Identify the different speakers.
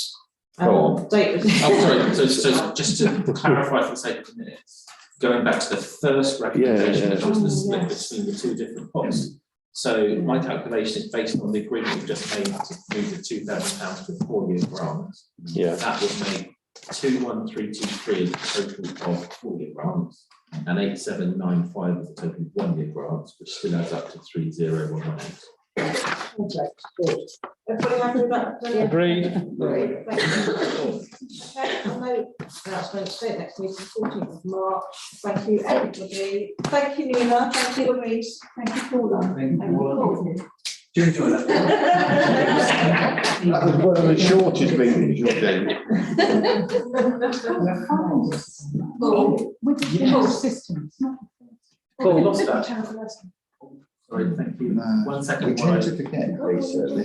Speaker 1: Um,
Speaker 2: Oh, wait.
Speaker 3: Oh, sorry, so, so just to clarify for the sake of the minutes, going back to the first recommendation,
Speaker 1: yeah.
Speaker 3: that was the
Speaker 2: Oh,
Speaker 3: split
Speaker 2: yes.
Speaker 3: between the two different pots. So my calculation is based on the agreement we just made to move the two thousand pounds to a four-year grant.
Speaker 1: Yeah,
Speaker 3: That would make two, one, three, two, three is the total of four-year grants, and eight, seven, nine, five is the total of one-year grants, which still adds up to three, zero, one, nine.
Speaker 2: Everybody happy with that? Brilliant.
Speaker 1: agreed.
Speaker 2: Great, thank you. Okay, I know announcements, so next meeting, fourteenth of March, thank you everybody, thank you Nina, thank you Louise, thank you Paula.
Speaker 4: Thank
Speaker 2: and Paul.
Speaker 4: Do you enjoy that?
Speaker 5: That was one of the shortest meetings you've been.
Speaker 2: Paul,
Speaker 6: With the whole system, it's not.
Speaker 3: Paul, lost that.
Speaker 6: Terrible, isn't it?
Speaker 3: Sorry, thank you.
Speaker 5: No.
Speaker 3: One second.
Speaker 5: We
Speaker 3: while I-
Speaker 5: tend to forget, Lisa, that